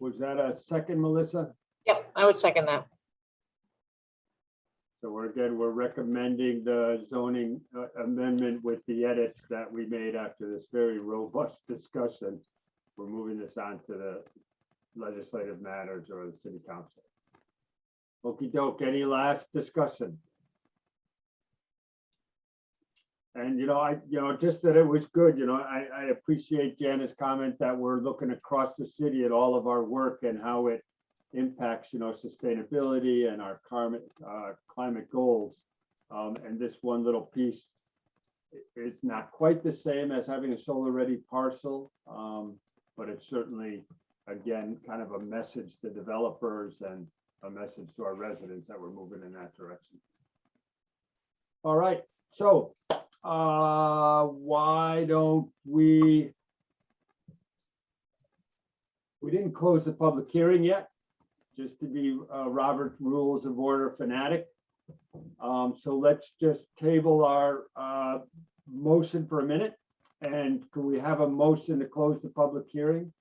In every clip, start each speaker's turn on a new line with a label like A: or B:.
A: was that a second, Melissa?
B: Yep, I would second that.
A: So we're good, we're recommending the zoning uh, amendment with the edits that we made after this very robust discussion. We're moving this on to the legislative matters or the city council. Okey doke, any last discussion? And you know, I, you know, just that it was good, you know, I, I appreciate Janice's comment that we're looking across the city at all of our work and how it impacts, you know, sustainability and our climate, uh, climate goals. Um, and this one little piece i- is not quite the same as having a solar-ready parcel. Um, but it's certainly, again, kind of a message to developers and a message to our residents that we're moving in that direction. All right, so, uh, why don't we? We didn't close the public hearing yet just to be uh, Robert Rules of Order fanatic. Um, So let's just table our uh, motion for a minute. And can we have a motion to close the public hearing?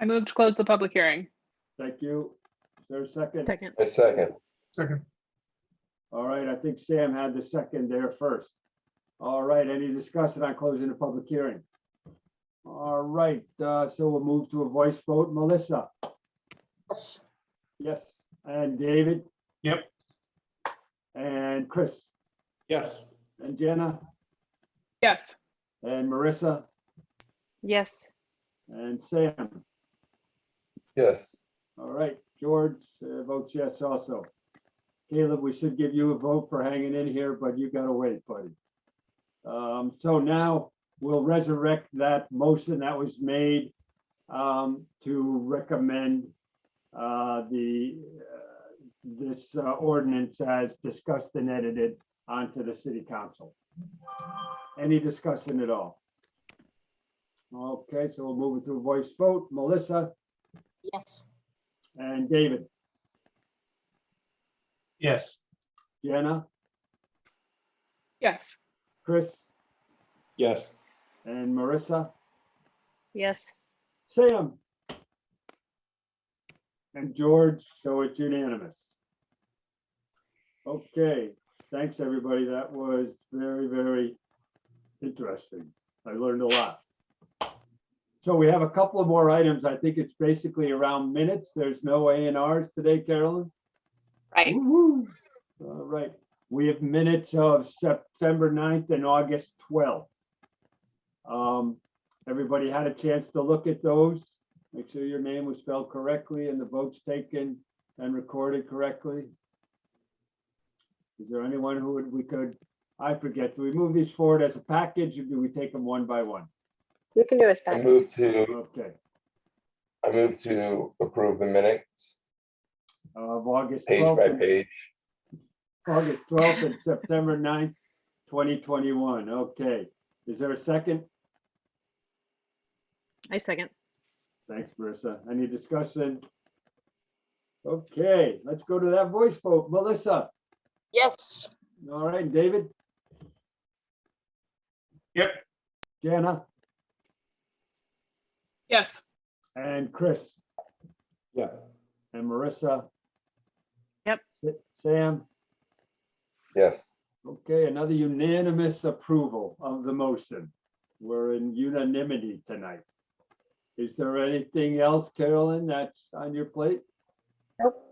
C: I move to close the public hearing.
A: Thank you. Is there a second?
C: Second.
D: I second.
E: Second,
A: All right, I think Sam had the second there first. All right, any discussion on closing the public hearing? All right, uh, so we'll move to a voice vote. Melissa?
B: Yes,
A: Yes. And David?
E: Yep.
A: And Chris?
E: yes.
A: And Jenna?
C: Yes.
A: And Marissa?
C: Yes.
A: And Sam,
D: Yes.
A: all right, George uh, votes yes also. Caleb, we should give you a vote for hanging in here, but you gotta wait, buddy. Um, so now we'll resurrect that motion that was made um, to recommend uh, the, uh, this uh, ordinance as discussed and edited onto the city council. Any discussion at all? Okay, so we'll move it to a voice vote. Melissa?
B: yes,
A: And David,
E: Yes.
A: Jenna,
C: Yes.
A: Chris,
E: Yes.
A: and Marissa,
C: Yes.
A: Sam. And George, so it's unanimous. Okay, thanks, everybody. That was very, very interesting. I learned a lot. So we have a couple of more items. I think it's basically around minutes. There's no A and Rs today, Carolyn?
B: right,
A: Woo-hoo. All right, we have minutes of September 9th and August twelfth. Um, everybody had a chance to look at those. Make sure your name was spelled correctly and the votes taken and recorded correctly. Is there anyone who would, we could, I forget, do we move these forward as a package or do we take them one by one?
F: You can do it
D: I
F: back.
D: move to,
A: Okay,
D: I move to approve the minutes,
A: of August
D: page by
A: twelfth,
D: page.
A: August twelfth and September 9th, twenty twenty-one. Okay, is there a second?
C: I second.
A: Thanks, Marissa. Any discussion? Okay, let's go to that voice vote. Melissa,
B: yes,
A: all right, David?
E: Yep.
A: Jana
C: Yes.
A: and Chris
E: Yeah.
A: and Marissa?
C: Yep.
A: Sa- Sam,
D: Yes.
A: okay, another unanimous approval of the motion. We're in unanimity tonight. Is there anything else, Carolyn, that's on your plate?
F: Nope.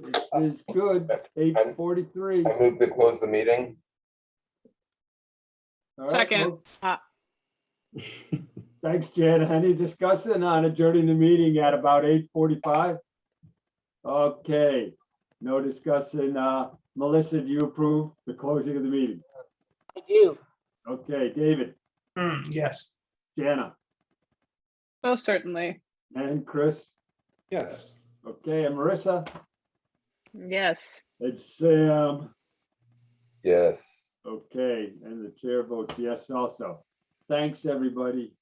A: This is good. Eight forty-three.
D: I move to close the meeting.
A: All right,
C: Second.
A: well-
C: Ah.
A: Thanks, Jen. Any discussion on adjourning the meeting at about eight forty-five? Okay, no discussion. Uh, Melissa, do you approve the closing of the meeting?
B: I do.
A: Okay, David,
E: Hmm, yes.
A: Jana,
C: Most certainly.
A: and Chris.
E: Yes.
A: Okay, and Marissa,
C: Yes.
A: and Sam.
D: Yes.
A: Okay, and the chair votes yes also. Thanks, everybody.